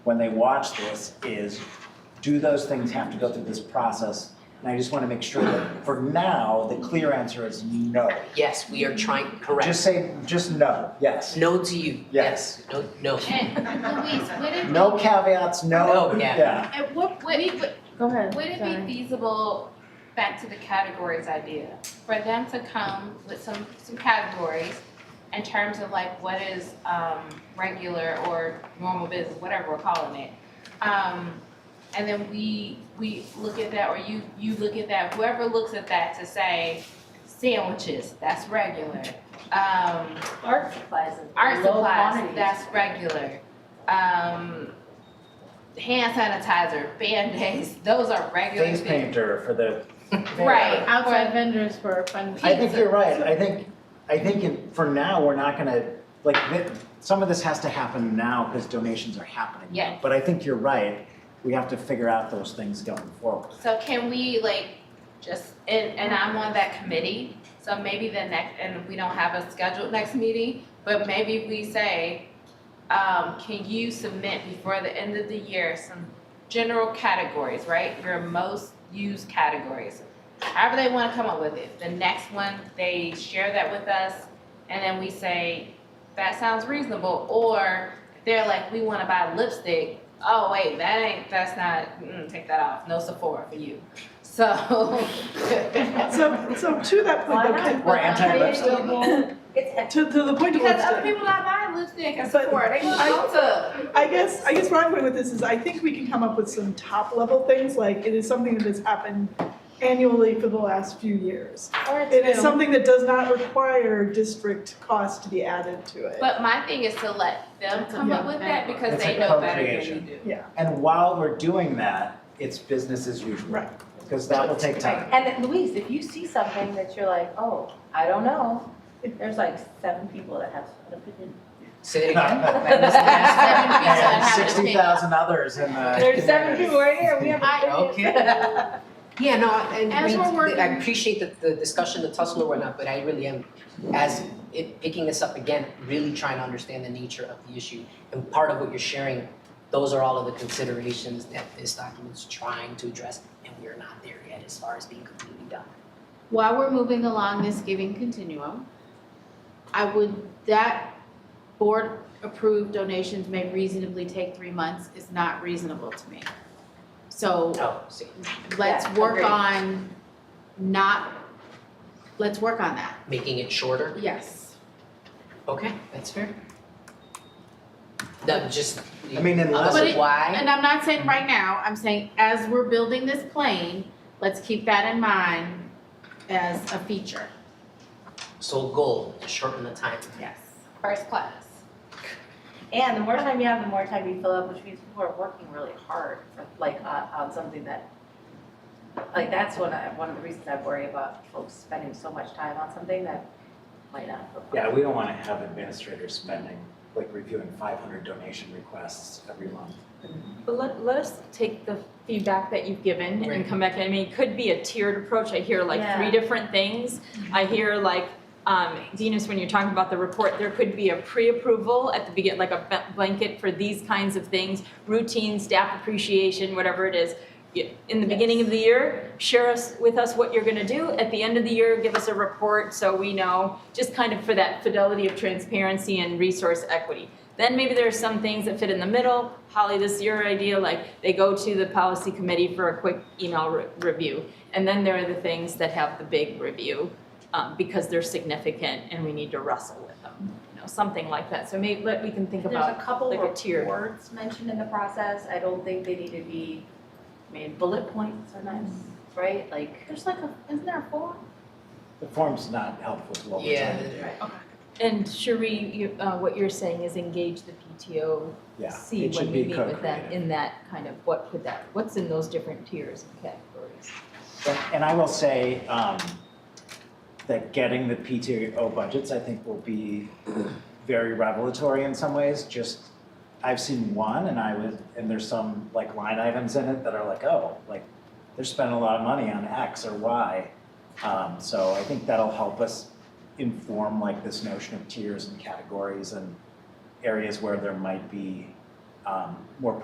when they watch this is, do those things have to go through this process? And I just want to make sure that for now, the clear answer is no. Yes, we are trying, Just correct. say, just no, yes. No to you, Yes. yes, no, no. And Louise, would it be? No caveats, no, No, yeah. yeah. At what, would, would Go ahead. would it be sorry. feasible, back to the categories idea, for them to come with some, some categories in terms of like what is, um, regular or normal business, whatever we're calling it? Um, and then we, we look at that, or you, you look at that, whoever looks at that to say, sandwiches, that's regular. Um, Art supplies. is Art low supplies, quantities. that's regular. Um, hand sanitizer, band-aids, those are regular Face things. painter for the. Right. Outside vendors for fun. I think you're right, I think, I think in- for now, we're not gonna, like, thi- some of this has to happen now because donations are happening. now. Yeah. But I think you're right, we have to figure out those things going forward. So can we like just, and, and I'm on that committee, so maybe the next, and we don't have a scheduled next meeting, but maybe we say, um, can you submit before the end of the year some general categories, right? Your most used categories. However they wanna come up with it. The next one, they share that with us and then we say, that sounds reasonable, or they're like, we wanna buy lipstick. Oh, wait, that ain't, that's not, mm, take that off. No Sephora for you. So. So, so to that point, Why not? okay, We're anti-lipstick. Available. It's at to, to the point of Because other lipstick, people not buying lipstick at But Sephora, they want I- Ulta. I guess, I guess where I'm going with this is I think we can come up with some top level things, like it is something that has happened annually for the last few years. Or it's It is new. something that does not require district cost to be added to it. But my thing is to let them That's a come up young with that family. because It's they a know better than you co-creation. do. And while we're doing that, it's business as usual, Right. because that will take time. And then, Louise, if you see something that you're like, oh, I don't know, there's like seven people that have an opinion. Say it again. And Seven people sixty that have thousand others in the. There's seven community. people right here, we have I- an opinion. okay. Yeah, no, and As we, we're working- I appreciate the, the discussion, the tussle or whatnot, but I really am, as it, picking this up again, really trying to understand the nature of the issue. And part of what you're sharing, those are all of the considerations that this document's trying to address, and we're not there yet as far as being completely done. While we're moving along this giving continuum, I would, that board approved donations may reasonably take three months is not reasonable to me. So Oh, see, let's Yeah, work agreed. on not, let's work on that. making it shorter, Yes. okay, that's fair. That just, I mean, unless, But unless it- why, And I'm not saying right now, I'm saying as we're building this plane, let's keep that in mind as a feature. so goal, to shorten the time. Yes. First class. And the more time you have, the more time you fill up, which means people are working really hard, for- like, on, on something that, like, that's one, I- one of the reasons I worry about folks spending so much time on something that might not. fill up. yeah, we don't wanna have administrators spending, like reviewing five hundred donation requests every month. But let, let us take the feedback that you've given Right. and come back, I mean, it could be a tiered approach, I hear like Yeah. three different things. I hear like, um, Dinas, when you're talking about the report, there could be a pre-approval at the begin, like a ba- blanket for these kinds of things, routine, staff appreciation, whatever it is. Y- In the beginning of the year, share us, with us what you're gonna do, at the end of the year, give us a report so we know, just kind of for that fidelity of transparency and resource equity. Then maybe there are some things that fit in the middle. Holly, this is your idea, like they go to the policy committee for a quick email re- review. And then there are the things that have the big review um, because they're significant and we need to wrestle with them. You know, something like that. So maybe let, we can think There's about a couple like a tiered. reports mentioned in the process, I don't think they need to be, I mean, bullet points are nice, right, like. There's like a, isn't there a form? The form's not helpful to what we're Yeah, trying to do. And Cherie, you, uh, what you're saying is engage the PTO, Yeah, see it when should we be meet with them co-created. in that kind of, what could that, what's in those different tiers and categories? And, and I will say, um, that getting the PTO budgets, I think, will be very revelatory in some ways, just, I've seen one and I was, and there's some like line items in it that are like, oh, like, they're spending a lot of money on X or Y. Um, so I think that'll help us inform like this notion of tiers and categories and areas where there might be, um, more